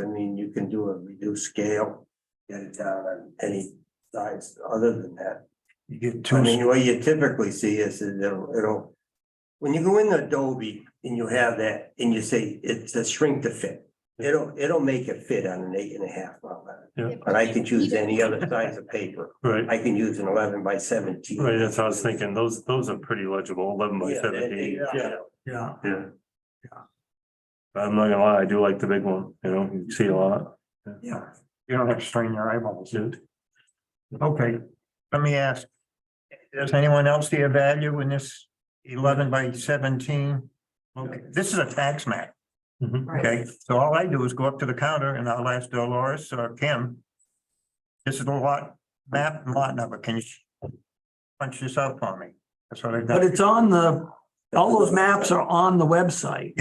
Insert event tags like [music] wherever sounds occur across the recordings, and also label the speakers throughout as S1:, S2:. S1: I mean, you can do a reduced scale, get it down on any size other than that.
S2: You get
S1: I
S2: two,
S1: mean, what you typically see is that it'll, it'll, when you go into Adobe and you have that and you say it's a shrink to fit. It'll, it'll make it fit on an eight and a half by eleven, but I can choose any other size of paper.
S2: right,
S1: I can use an eleven by seventeen.
S2: right, that's what I was thinking, those, those are pretty legible, eleven by
S1: Yeah, and- and,
S2: seventeen,
S1: yeah,
S3: Yeah,
S2: yeah. But I'm not gonna lie, I do like the big one, you know, you see a lot,
S1: Yeah,
S3: you don't have to strain your eyeballs.
S2: dude.
S3: Okay, let me ask. Does anyone else see a value in this eleven by seventeen? Okay, this is a tax map,
S4: Mm-hmm.
S2: Mhm.
S3: okay? So all I do is go up to the counter and I'll ask Dolores or Kim. This is the lot, map and lot number. Can you punch this out for me? That's what I've
S4: But
S3: done.
S4: it's on the, all those maps are on the website.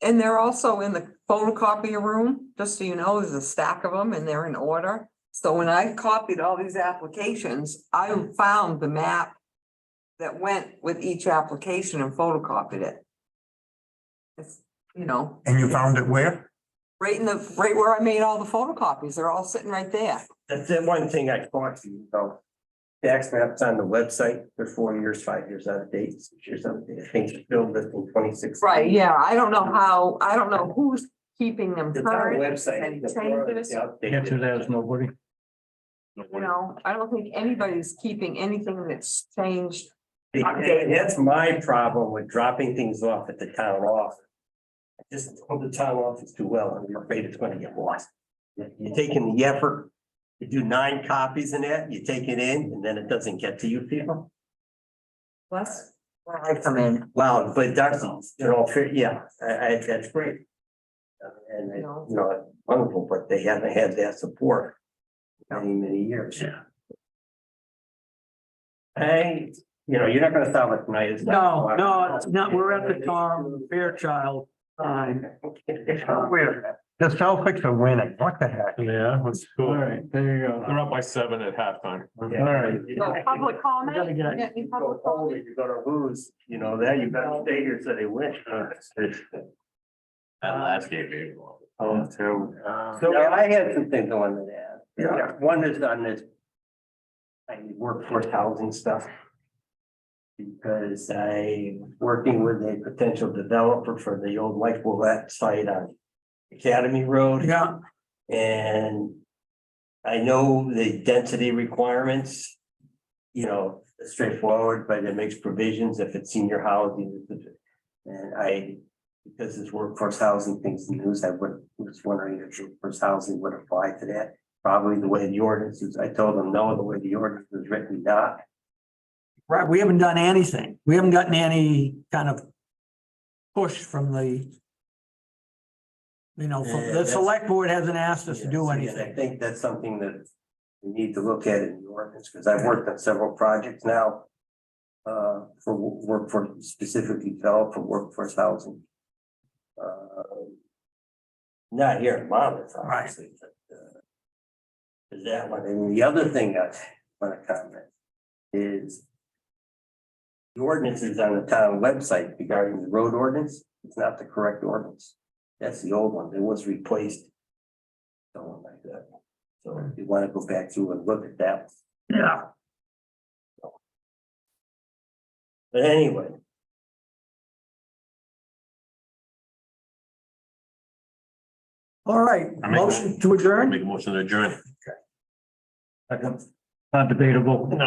S5: And they're also in the photocopier room, just so you know, there's a stack of them and they're in order. So when I copied all these applications, I found the map that went with each application and photocopied it. It's, you know,
S3: And you found it where?
S5: right in the, right where I made all the photocopies, they're all sitting right there.
S1: that's the one thing I caught you, though. Tax maps on the website, they're four years, five years out of date, six years out of date. I think it's built in twenty six.
S5: Right, yeah, I don't know how, I don't know who's keeping them
S1: It's on the
S5: current,
S1: website.
S5: Any
S1: the
S5: changes?
S1: product, the
S4: Answer
S1: updated.
S4: that is nobody.
S5: you know, I don't think anybody's keeping anything that's changed
S1: And that's my problem with dropping things off at the town office. I Just hold the town office too well, and you're afraid it's gonna get lost. You're taking the effort, you do nine copies in that, you take it in, and then it doesn't get to you people.
S5: Plus, where I come in,
S1: Wow, but that's, you know, fair- yeah, I, I, that's great. Uh, And, it- you know, wonderful, but they haven't had that support. in Many, many years.
S2: Yeah.
S1: Hey, you know, you're not gonna solve it tonight. it's
S4: No,
S1: not-
S4: no, it's not, we're at the
S1: [laughs]
S4: farm, Fairchild time.
S3: Where? The Celtics are winning. What the heck?
S2: Yeah, that's cool.
S4: there you go.
S6: They're up by seven at halftime.
S2: All right.
S5: so public comment?
S4: We gotta get-
S5: Yeah, any public comment?
S1: You're gonna lose, you know, that, you better stay here so they win. [laughs]
S6: That last game, maybe.
S1: Oh,
S6: two.
S1: So I had some things I wanted to add. Yeah. One is on this. I workforce housing stuff. Because I'm working with a potential developer for the old Lake Willette site on Academy Road.
S4: Yeah,
S1: And I know the density requirements, you know, straightforward, but it makes provisions if it's senior housing. And I, because it's workforce housing things in the news, I would, was wondering if workforce housing would apply to that. Probably the way the ordinance is, I told them, no, the way the ordinance is written, not.
S4: right, we haven't done anything. We haven't gotten any kind of push from the you know,
S1: Yeah,
S4: from- the
S1: that's-
S4: select board hasn't asked us to do
S1: Yes, and I
S4: anything.
S1: think that's something that we need to look at in the ordinance, because I've worked on several projects now. Uh, for wo- work for specifically developed for workforce housing. Uh, Not here in Monmouth, obviously, but. uh, Is that one, and the other thing I want to comment is. The ordinance is on the town website regarding the road ordinance, it's not the correct ordinance. That's the old one, it was replaced something like that. So if you want to go back through and look at that.
S3: Yeah.
S1: But anyway,
S4: All right,
S6: I make-
S4: motion to adjourn?
S6: Make a motion to adjourn.
S4: Not debatable. No.